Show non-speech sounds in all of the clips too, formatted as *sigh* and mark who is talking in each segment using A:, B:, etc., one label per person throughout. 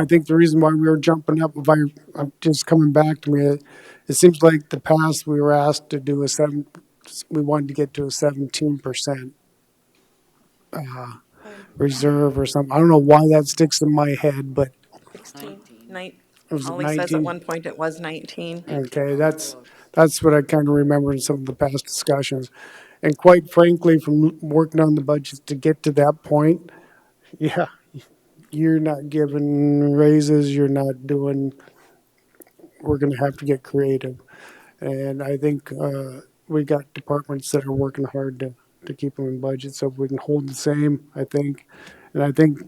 A: I think the reason why we were jumping up, if I, I'm just coming back to me, it, it seems like the past we were asked to do a seven, we wanted to get to a seventeen percent uh, reserve or something. I don't know why that sticks in my head, but
B: Sixteen. Nine,
A: it was
B: Ollie says at
A: nineteen.
B: one point it was nineteen.
A: Okay, that's, that's what I kind of remember in some of the past discussions. And quite frankly, from working on the budget to get to that point, *laughs* yeah, you're not giving raises, you're not doing, we're going to have to get creative. And I think uh, we got departments that are working hard to, to keep them in budget, so if we can hold the same, I think. And I think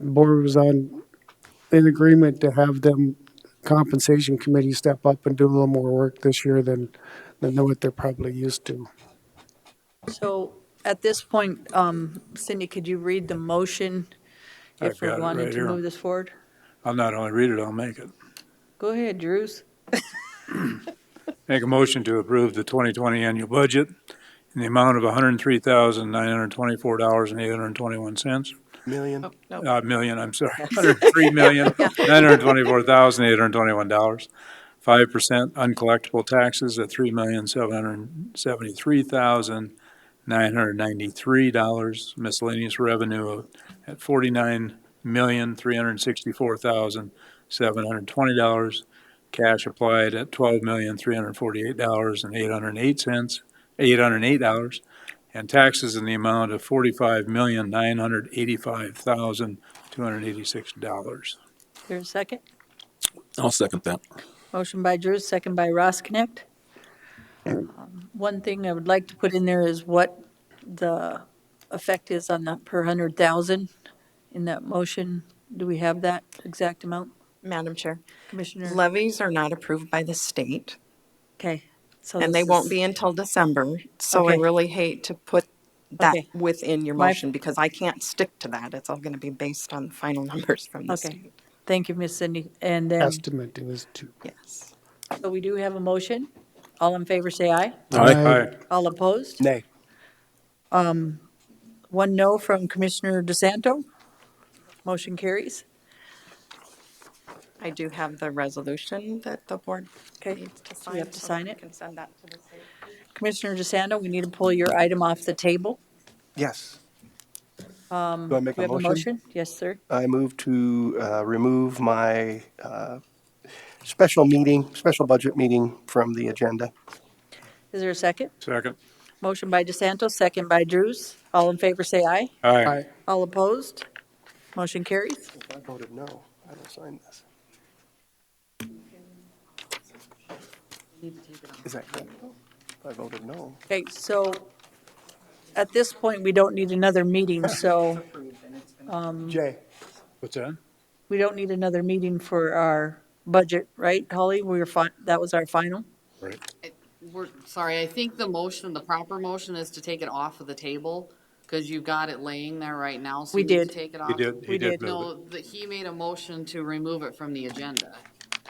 A: the board was on, in agreement to have them compensation committee step up and do a little more work this year than, than what they're probably used to.
C: So at this point, um, Cindy, could you read the motion
D: I've
C: if we
D: got it
C: wanted
D: right
C: to
D: here.
C: move this forward?
D: I'll not only read it, I'll make it.
C: Go ahead, Drews.
D: Make a motion to approve the 2020 annual budget in the amount of $103,924.821.
E: Million.
B: Oh, no.
D: Uh, million, I'm sorry, $103,924,821. 5% uncollectible taxes at $3,773,993. Miscellaneous revenue of- at $49,364,720. Cash applied at $12,348,808, $808 and taxes in the amount of forty-five million, nine hundred eighty-five thousand, two hundred eighty-six dollars.
C: There's a second.
E: I'll second that.
C: Motion by Drews, second by Ross Connect. Um, One thing I would like to put in there is what the effect is on the per hundred thousand in that motion. Do we have that exact amount,
B: Madam Chair,
C: Commissioner?
B: levies are not approved by the state,
C: Okay. so
B: and they
C: Oh, this
B: won't
C: is-
B: be until December. So I
C: Okay.
B: really hate to put that
C: Okay.
B: within your
C: My-
B: motion because I can't stick to that. It's all going to be based on the final *laughs* numbers from the
C: Okay.
B: state.
C: Thank you, Miss Cindy. And then,
A: Estimate is two.
B: Yes.
C: so we do have a motion. All in favor, say aye.
D: Aye.
C: All opposed?
E: Nay.
C: One no from Commissioner DeSanto. Motion carries.
B: I do have the resolution that the board
C: Okay,
B: needs to
C: so
B: sign.
C: we have to
B: so
C: sign
B: I
C: it.
B: Can send that to the state.
C: Commissioner DeSanto, we need to pull your item off the table.
E: Yes. Do I make
C: Do Um, we
E: a
C: have a
E: motion?
C: motion? Yes, sir.
E: I move to uh, remove my uh, special meeting, special budget meeting from the agenda.
C: Is there a second?
D: Second.
C: Motion by DeSanto, second by Drews. All in favor, say aye.
D: Aye.
C: All opposed? Motion carries.
E: If I voted no, I don't sign this. Is that correct? If I voted no.
C: Okay, so at this point, we don't need another meeting, so Mm-hmm.
E: Jay?
D: What's that?
C: we don't need another meeting for our budget, right, Holly? We were fine, that was our final?
D: Right.
F: We're, sorry, I think the motion, the proper motion is to take it off of the table, because you've got it laying there right now, so
C: We
F: you need to
C: did.
F: take it off.
D: He did,
C: We
D: he did
C: did.
D: move it.
F: No, that he made a motion to remove it from the agenda.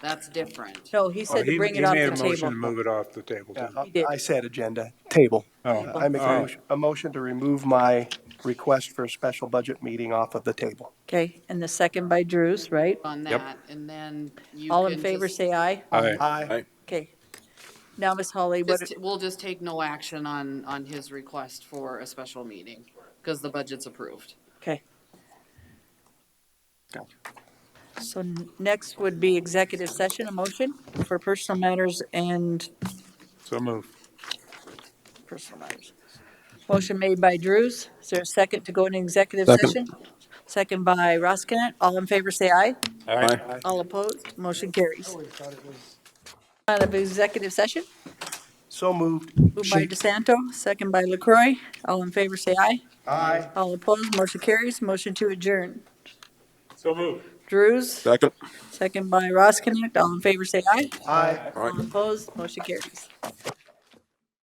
F: That's different.
C: No, he said to bring it off
D: Oh, He
C: the
D: made a motion to
C: table.
D: move it off the table.
E: Yeah,
D: didn't he?
C: He did.
E: uh, I said agenda, table. Uh,
D: Oh.
E: I make a
D: Oh.
E: motion- a motion to remove my request for a special budget meeting off of the table.
C: Okay, and the second by Drews, right?
F: On
D: Yep.
F: that, and then you
C: All in
F: can
C: favor,
F: just-
C: say aye.
D: Aye.
E: Aye.
C: Okay. Now, Miss Holly, what,
F: just- We'll just take no action on, on his request for a special meeting, because the budget's approved.
C: okay. So n- next would be executive session, a motion for personal matters and
D: So move.
C: personal matters. Motion made by Drews. Is there a second to go into executive
E: Second.
C: session? Second by Roskinet. All in favor, say aye.
D: Aye.
C: All opposed, motion carries. Out of executive session,
E: So moved.
C: moved by DeSanto, second by LaCroy. All in favor, say aye.
E: Aye.
C: All opposed, motion carries. Motion to adjourn.
D: So move.
C: Drews,
G: Second.
C: second by Roskinet. All in favor, say aye.
E: Aye.
C: All opposed, motion carries.